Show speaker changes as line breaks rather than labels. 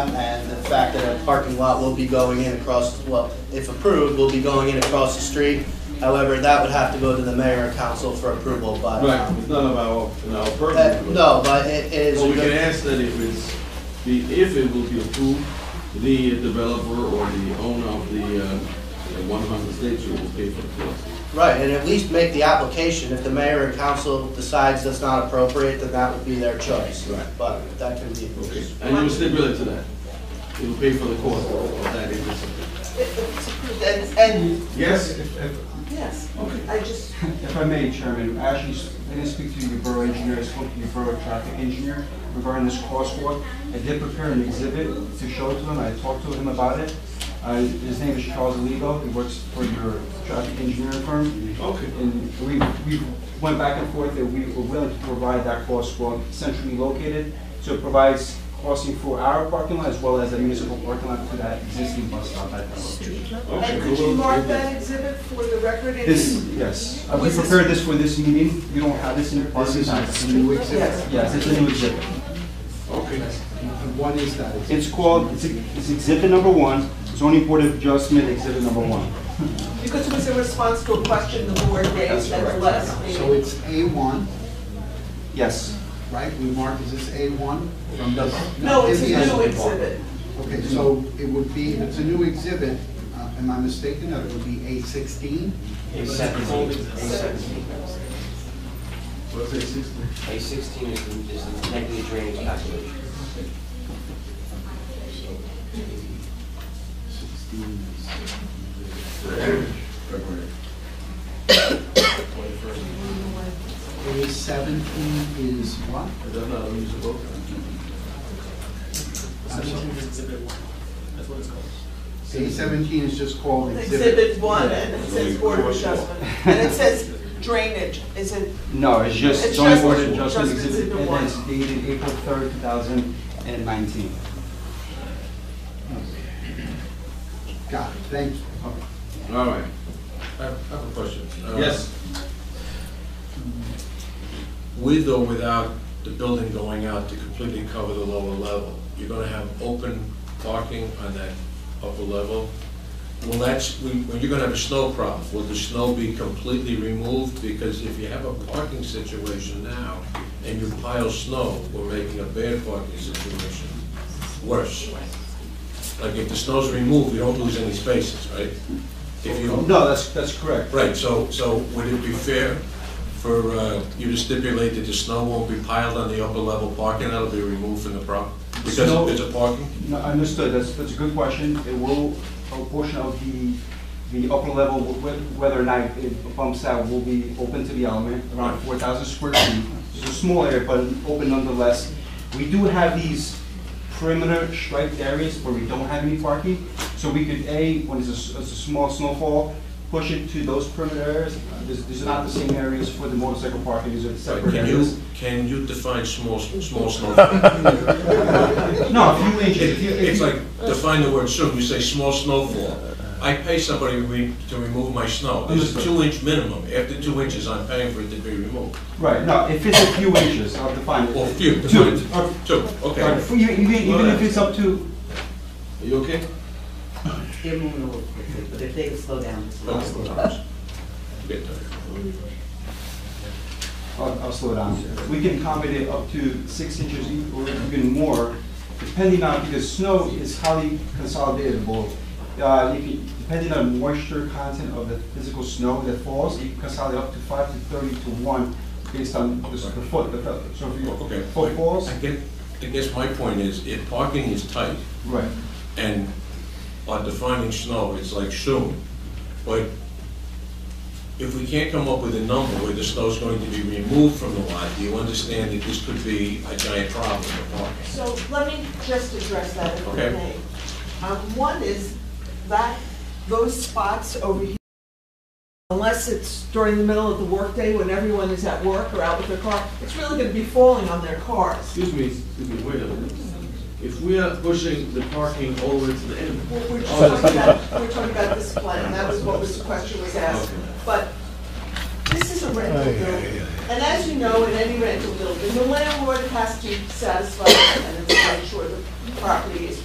And the fact that a parking lot will be going in across, well, if approved, will be going in across the street. However, that would have to go to the mayor and council for approval, but.
Right, it's none of our, in our
Uh,
purview.
No, but it is.
But we can ask that if it's, the, if it will be approved, the developer or the owner of the, uh, one hundred State Street will pay for the cost.
Right, and at least make the application. If the mayor and council decides that's not appropriate, then that would be their choice.
Right.
But that can be.
And you will stipulate to that, it will pay for the cost of that if it's approved.
And, and,
Yes?
If- If
yes,
Okay.
I just,
if I may, Chairman, I actually, s- I didn't speak to your borough engineer, I spoke to your borough traffic engineer regarding this crosswalk. I did prepare an exhibit to show to him, I talked to him about it. Uh, His name is Charles Aligo, he works for your traffic engineering firm.
Okay.
And we, we went back and forth that we were willing to provide that crosswalk centrally located. So it provides crossing for our parking lot as well as a municipal parking lot to that existing bus stop at that location.
Okay,
and
we
could
will-
you mark
we will-
that exhibit for the record? and-
This, yes, Uh, we
Was this-
prepared this for this meeting, we don't have this in the
This
parking
is
packet.
a new exhibit.
Yes,
Yes, it's a new exhibit.
Okay.
And What is that?
It's called, it's it's exhibit number one, zoning board of adjustment exhibit number one.
because it was in response to a question the board raised at the last
So
meeting.
it's A1,
Yes,
right? We mark, is this A1 from the?
No, it's a
in the-
new exhibit.
Okay, so it would be, if it's a new exhibit, uh, am I mistaken, that it would be A16?
What's it, sixteen?
A sixteen is the, is the negative drainage calculation.
A17 is what?
Is that not a municipal?
I'm sorry. A17 is just called exhibit.
Exhibit one, and it says board of adjustment, and it says drainage, is it,
no, it's just
It's
zoning
just-
board of adjustment
adjustment
exhibit,
exhibit
and
one.
it's dated April third, two thousand and nineteen.
Got it, thank you.
All right.
I have I have a question. Uh,
Yes.
With or without the building going out to completely cover the lower level, you're gonna have open parking on that upper level? Well, that's, we- well, you're gonna have a snow problem. Will the snow be completely removed? Because if you have a parking situation now and you pile snow, we're making a bad parking situation worse. Like if the snow's removed, you don't lose any spaces, right? If you
No, that's, that's correct.
Right, so, so would it be fair for uh, you to stipulate that the snow won't be piled on the upper level parking, that'll be removed from the prop?
Snow-
Because it's a parking?
No, understood, that's, that's a good question, it will, a portion of the, the upper level, wh- whether or not it bumps out, will be open to the element, around four thousand square feet. It's a small area, but open nonetheless. We do have these perimeter striped areas where we don't have any parking, so we could, A, when it's a, s- it's a small snowfall, push it to those perimeter areas. These, these are not the same areas for the motorcycle parking, these are separate
Can you,
areas.
can you define small, small snowfall?
No, a few inches,
It-
if you, if you.
It's like, define the word soon, you say small snowfall. I pay somebody to re- to remove my snow, there's a
Understood.
two inch minimum, after two inches, I'm paying for it to be removed.
Right, no, if it's a few inches, I'll define it.
Or few,
Two.
define
Or-
it. two,
or
okay.
f- Even even- even if it's up to,
Are you okay?
They're moving a little quickly, but if they could slow down. it's fine.
Okay. Get there.
I'll I'll slow down. We can accommodate up to six inches e- or even more, depending on, because snow is highly consolidatable. Uh, You can, depending on moisture content of the physical snow that falls, you can consolidate up to five to thirty to one based on the s- the foot, the fe- so if your
Okay.
foot falls,
I guess, I guess my point is, if parking is tight
right.
and are defining snow, it's like soon, but if we can't come up with a number where the snow's going to be removed from the lot, do you understand that this could be a giant problem for parking?
so let me just address that if I
Okay.
may. Um, one is that, those spots over here, unless it's during the middle of the workday when everyone is at work or out with their car, it's really gonna be falling on their cars.
Excuse me, excuse me, wait a minute. If we are pushing the parking over to the end,
Well, We're just
Oh,
talking about, we're talking about this plan, that was what was, the question was asked. But this is a rental building, and as you know, in any rental building, the landlord has to satisfy the tenants, and ensure the property is